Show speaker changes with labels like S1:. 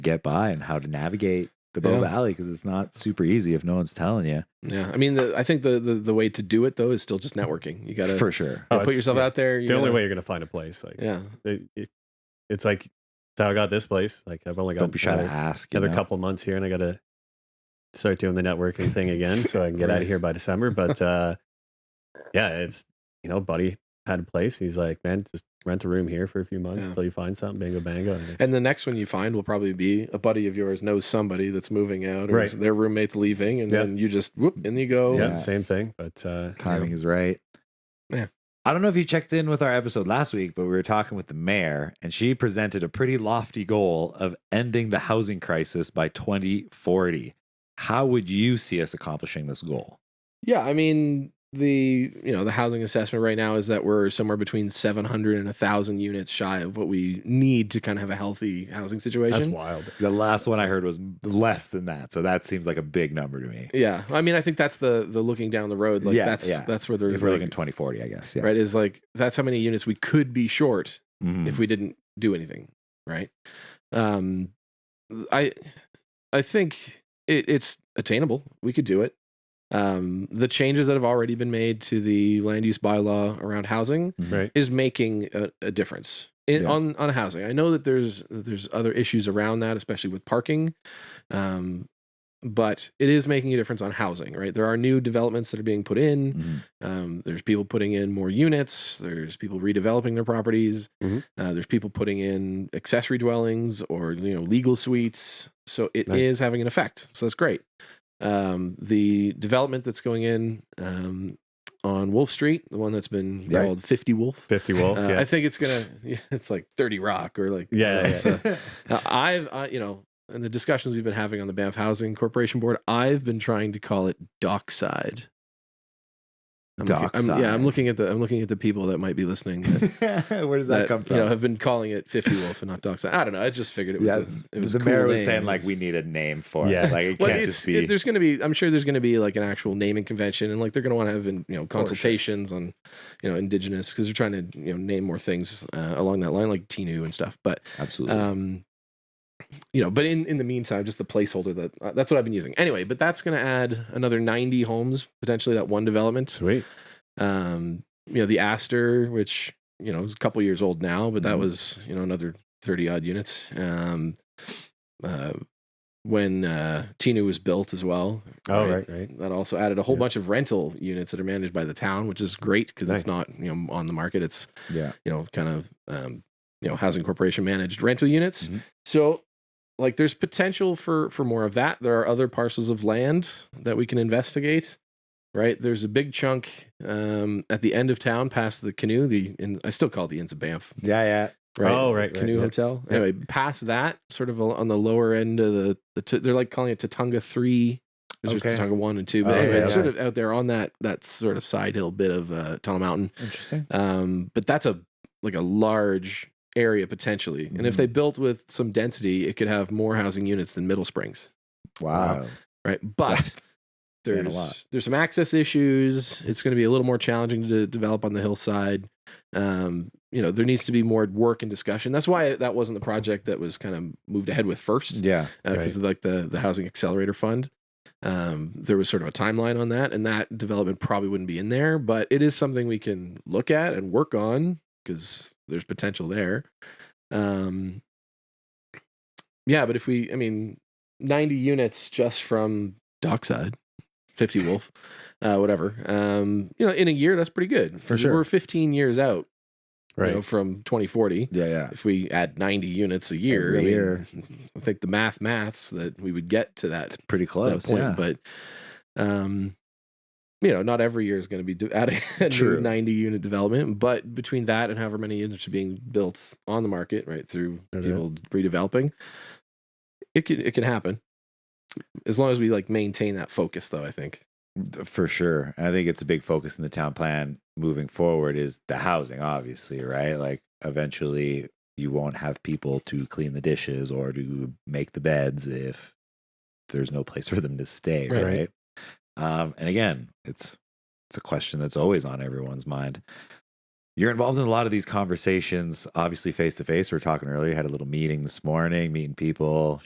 S1: get by and how to navigate the Bow
S2: Yeah.
S1: Valley because it's not super easy if no one's telling you.
S2: Yeah, I mean, the, I think the, the the way to do it though is still just networking. You gotta,
S1: for sure.
S2: gotta
S3: Oh,
S2: put
S3: it's-
S2: yourself
S3: yeah.
S2: out there. You
S3: the only
S2: gotta-
S3: way you're gonna find a place. Like
S2: Yeah,
S3: it, it, it's like it's how I got this place. Like I've only got
S1: Don't be shy to
S3: another,
S1: ask. you
S3: another
S1: know?
S3: couple months here, and I gotta start doing the networking thing again so I can get out
S2: Right.
S3: of here by December. But uh, yeah, it's you know, buddy had a place. He's like, man, just rent a room here for a few months
S2: Yeah.
S3: until you find something. Bingo, bango. And, it's-
S2: and the next one you find will probably be a buddy of yours knows somebody that's moving out, or
S3: Right.
S2: their roommate's leaving, and
S3: Yeah.
S2: then you just whoop and you go.
S3: yeah,
S1: Yeah.
S3: same thing. But uh,
S1: Timing is right.
S2: Yeah.
S1: I don't know if you checked in with our episode last week, but we were talking with the mayor, and she presented a pretty lofty goal of ending the housing crisis by 2040. How would you see us accomplishing this goal?
S2: Yeah, I mean the you know the housing assessment right now is that we're somewhere between 700 and 1000 units shy of what we need to kind of have a healthy housing situation.
S3: that's wild.
S1: The last one I heard was less than that, so that seems like a big number to me.
S2: Yeah, I mean I think that's the the looking down the road like
S1: Yeah,
S2: that's
S1: yeah.
S2: that's where they're
S1: If we're
S2: like,
S1: looking 2040, I guess. Yeah.
S2: right is like that's how many units we could be short
S1: Mhm.
S2: if we didn't do anything right um i i think it, it's attainable we could do it um the changes that have already been made to the land use bylaw around housing
S1: Mhm.
S3: Right.
S2: is making a, a difference in,
S1: Yeah.
S2: on on housing i know that there's that there's other issues around that especially with parking um but it is making a difference on housing right there are new developments that are being put in
S1: Mhm.
S2: um, there's people putting in more units. There's people redeveloping their properties.
S3: Mhm.
S2: Uh, there's people putting in accessory dwellings or you know legal suites. So it is
S3: Nice.
S2: having an effect. So that's great. Um, the development that's going in um, on Wolf Street, the one that's been
S1: Right.
S2: called Fifty Wolf.
S3: Fifty Wolf.
S2: Uh,
S3: yeah.
S2: I think it's gonna. Yeah, it's like Thirty Rock or like
S3: Yeah,
S1: Mm-hmm.
S3: yeah,
S2: it's, uh, now, I've, I, you know, in the discussions we've been having on the Banff Housing Corporation Board, I've been trying to call it dockside. I'm looking- I'm- yeah,
S1: Dockside.
S2: I'm looking at the I'm looking at the people that might be listening. That,
S1: Where does that, come from?
S2: You know, have been calling it Fifty Wolf and not Dockside. I don't know. I just figured it was.
S1: yeah,
S2: a, it was
S1: the
S2: a
S1: mayor
S2: cool
S1: was
S2: name.
S1: saying
S2: It
S1: like
S2: was-
S1: we need a name for
S3: Yeah.
S1: it. Like it
S2: Well,
S1: can't
S2: it's
S1: just be.
S2: it- there's going to be. I'm sure there's going to be like an actual naming convention, and like they're going to want to have in, you know
S1: For sure.
S2: consultations on, you know, indigenous because they're trying to you know name more things uh, along that line, like Tinu and stuff. But
S1: Absolutely.
S2: um you know but in in the meantime just the placeholder that uh, that's what i've been using anyway but that's going to add another 90 homes potentially that one development
S3: Sweet.
S2: um you know the aster which you know is a couple years old now but that
S3: Mm-hmm.
S1: Mhm.
S2: was you know another 30 odd units um uh when uh tinu was built as well
S3: Oh
S2: Right.
S3: right, right.
S2: that also added a whole
S3: Yeah.
S2: bunch of rental units that are managed by the town which is great because it's
S3: Nice.
S2: not you know on the market it's
S1: yeah.
S2: you know, kind of, um, you know, housing corporation managed rental units.
S3: Mm-hmm.
S1: Mhm.
S2: So, like, there's potential for for more of that. There are other parcels of land that we can investigate. Right there's a big chunk um, at the end of town, past the canoe. The in, I still call it the Inns of Banff.
S1: Yeah. Yeah.
S2: Right,
S3: Oh, right, right,
S2: canoe
S3: yeah.
S2: hotel.
S3: Yeah.
S2: Anyway, past that, sort of on the lower end of the, the t- they're like calling it Tatunga Three. There's
S1: Okay.
S2: just Tatunga One and Two, but
S1: Oh,
S2: anyway,
S1: yeah,
S2: it's
S1: yeah.
S2: sort of out there on that that sort of side hill bit of uh, Tunnel Mountain.
S1: Interesting.
S2: Um, but that's a like a large area potentially. And
S1: Mm-hmm.
S2: if they built with some density, it could have more housing units than Middle Springs,
S1: Wow.
S2: right? But
S1: That's saying a lot.
S2: there's there's some access issues. It's going to be a little more challenging to develop on the hillside. Um, you know, there needs to be more work and discussion. That's why that wasn't the project that was kind of moved ahead with first
S1: Yeah.
S2: because uh, of like the the housing accelerator fund. Um, there was sort of a timeline on that, and that development probably wouldn't be in there, but it is something we can look at and work on because there's potential there. Um, yeah, but if we, I mean, 90 units just from Dockside, 50 Wolf, uh, whatever. Um, you know, in a year, that's pretty good
S1: For sure.
S2: We're 15 years out,
S3: Right.
S2: you know, from 2040
S1: Yeah. Yeah.
S2: if we add 90 units a year,
S1: Every
S2: I, mean,
S1: year.
S2: I think the math maths that we would get to that,
S1: It's pretty
S2: that
S1: close.
S2: point.
S1: yeah.
S2: But, um, you know, not every year is going to be do- adding a new
S1: True.
S2: 90 unit development, but between that and however many units are being built on the market, right, through
S3: Okay.
S2: people redeveloping, it can, it can happen. As long as we like maintain that focus, though, I think.
S1: for sure and i think it's a big focus in the town plan moving forward is the housing obviously right like eventually you won't have people to clean the dishes or to make the beds if there's no place for them to stay
S2: Right.
S1: right, um and again it's it's a question that's always on everyone's mind you're involved in a lot of these conversations obviously face to face we were talking earlier had a little meeting this morning meeting people